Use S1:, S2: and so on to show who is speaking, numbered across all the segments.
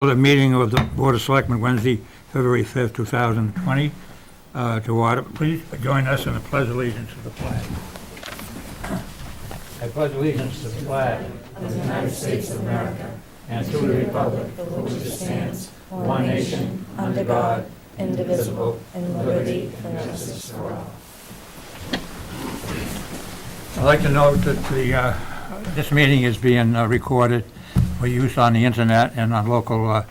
S1: the meeting of the Board of Selectmen Wednesday, February 5th, 2020. Uh, To order, please join us in the pledge of allegiance to the flag. I pledge allegiance to the flag
S2: under God, indivisible, and liberty for justice.
S1: I'd like to note that the, uh, this meeting is being uh, recorded for use on the internet and on local uh,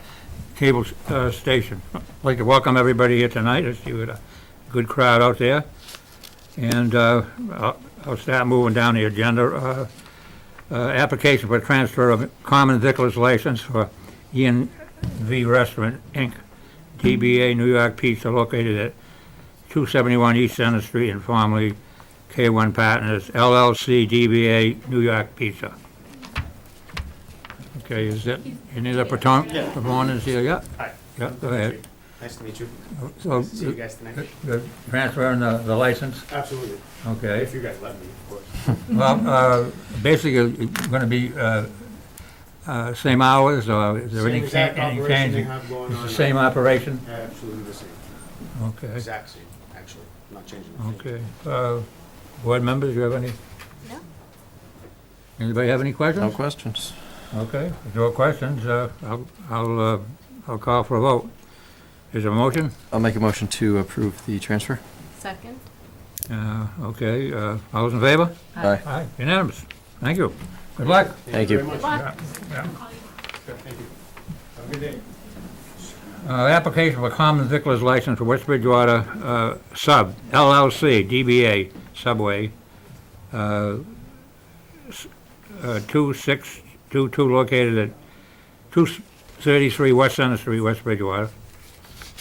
S1: cable uh, station. I'd like to welcome everybody here tonight, I see what a good crowd out there. And uh, I'll I'll start moving down the agenda. Uh, uh, Application for transfer of common vicular's license for Ian V Restaurant, Inc., DBA New York Pizza located at 271 East Center Street and formerly K1 Partners LLC DBA New York Pizza. Okay, is that, any other proton- proponents here? Yeah?
S3: Hi.
S1: Yeah, go ahead.
S3: Nice to meet you.
S1: So,
S3: Nice to see you guys tonight.
S1: the transfer and the the license,
S3: Absolutely.
S1: okay.
S3: If you guys let me, of course. Mm-hmm.
S1: Well, uh, basically, it's going to be uh, uh, same hours, or is there any
S3: Same
S1: cha-
S3: exact
S1: any
S3: operation they
S1: change?
S3: have going
S1: It's
S3: on.
S1: the same operation?
S3: Absolutely the same.
S1: Okay,
S3: Exact same, actually. Not changing a thing.
S1: okay. Uh, Board members, you have any?
S2: No.
S1: Anybody have any questions?
S4: No questions.
S1: Okay, if there are questions, uh, I'll, I'll, uh, I'll call for a vote. Is there a motion?
S4: I'll make a motion to approve the transfer.
S5: Second?
S1: Uh, Okay, uh, all those in favor?
S4: Aye.
S1: Aye. Unanimous. Thank you. Good luck.
S4: Thank you.
S3: very much.
S5: What?
S1: Yeah.
S3: Thank you. Have a good day.
S1: Uh, Application for common vicular's license for West Bridgewater uh, Sub LLC, DBA Subway, uh, s- uh, 2622 located at 233 West Center Street, West Bridgewater.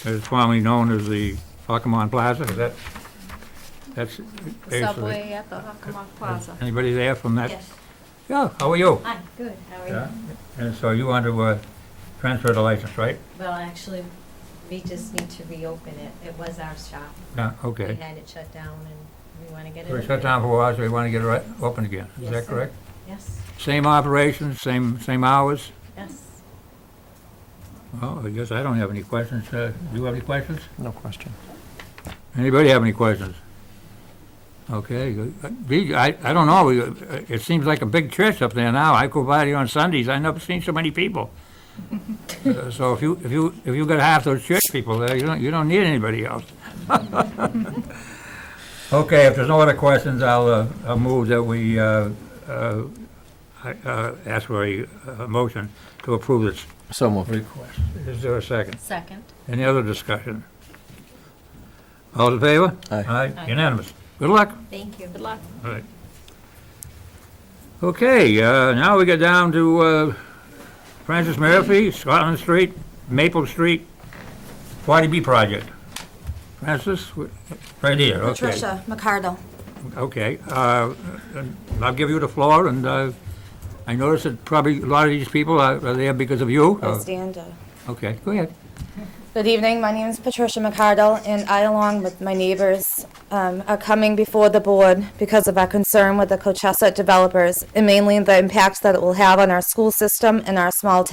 S1: It's formerly known as the Hockamon Plaza, is that, that's basically...
S5: Subway at the Hockomock Plaza.
S1: Anybody there from that?
S5: Yes.
S1: Yeah, how are you?
S5: Hi, good, how are
S1: Yeah,
S5: you?
S1: and so you want to uh, transfer the license, right?
S6: Well, actually, we just need to reopen it. It was our shop.
S1: Yeah,
S6: We
S1: okay.
S6: had it shut down and we want to get it.
S1: We shut
S6: open.
S1: down for a while, so we want to get it right, open again, is
S6: Yes,
S1: that
S6: sir.
S1: correct?
S6: Yes,
S1: Same operations, same, same hours?
S6: yes.
S1: Well, I guess I don't have any questions, uh, do you have any questions?
S4: No question.
S1: Anybody have any questions? Okay, uh, gee, I, I don't know, We, uh, it seems like a big church up there now, I go by there on Sundays, I never seen so many people. Uh, So if you, if you, if you got half those church people there, you don't, you don't need anybody else. Okay, if there's no other questions, I'll, uh, I'll move that we, uh, uh, I- uh, ask for a, uh motion to approve this
S4: So moved.
S1: request. Is there a second?
S5: Second?
S1: Any other discussion? All in favor?
S4: Aye.
S1: Aye, unanimous. Good luck.
S6: Thank you.
S5: Good luck.
S1: All right. Okay, uh, now we get down to uh, Francis Murphy, Scotland Street, Maple Street, 40B Project. Francis, wh- right here, okay.
S2: Patricia McCardle.
S1: Okay, uh, and I'll give you the floor, and uh, I notice that probably a lot of these people are are there because of you.
S2: Please stand. uh,
S1: Okay, go ahead.
S2: Good evening, my name is Patricia McCardle, and I, along with my neighbors, um, are coming before the board because of our concern with the Cochessa developers, and mainly the impact that it will have on our school system and our small